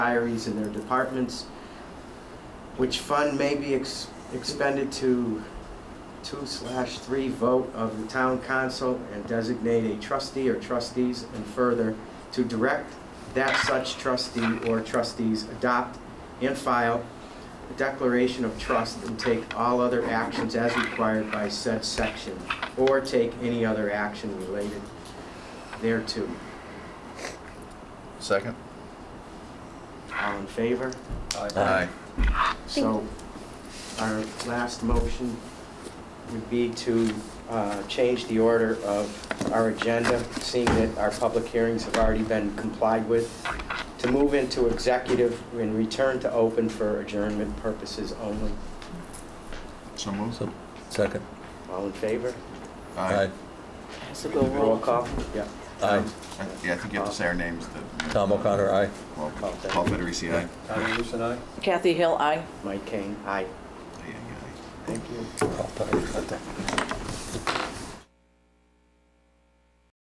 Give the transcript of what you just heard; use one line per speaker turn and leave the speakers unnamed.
diaries in their departments, which fund may be ex- expended to two slash three vote of the town council and designate a trustee or trustees, and further, to direct that such trustee or trustees adopt and file a declaration of trust and take all other actions as required by said section, or take any other action related thereto.
Second?
All in favor?
Aye.
So our last motion would be to uh, change the order of our agenda, seeing that our public hearings have already been complied with, to move into executive and return to open for adjournment purposes only.
So moved?
So, second.
All in favor?
Aye.
Has to go
Roll
roll.
call? Yeah.
Aye.
I- Yeah, I think you have to say our names. to-
Tom O'Connor, aye.
Well,
Paul Federer.
Paul Federici, aye.
Tom Wilson, aye.
Kathy Hill, aye.
Mike Kane, aye.
Aye, aye, aye.
Thank you.
I'll tell you about that.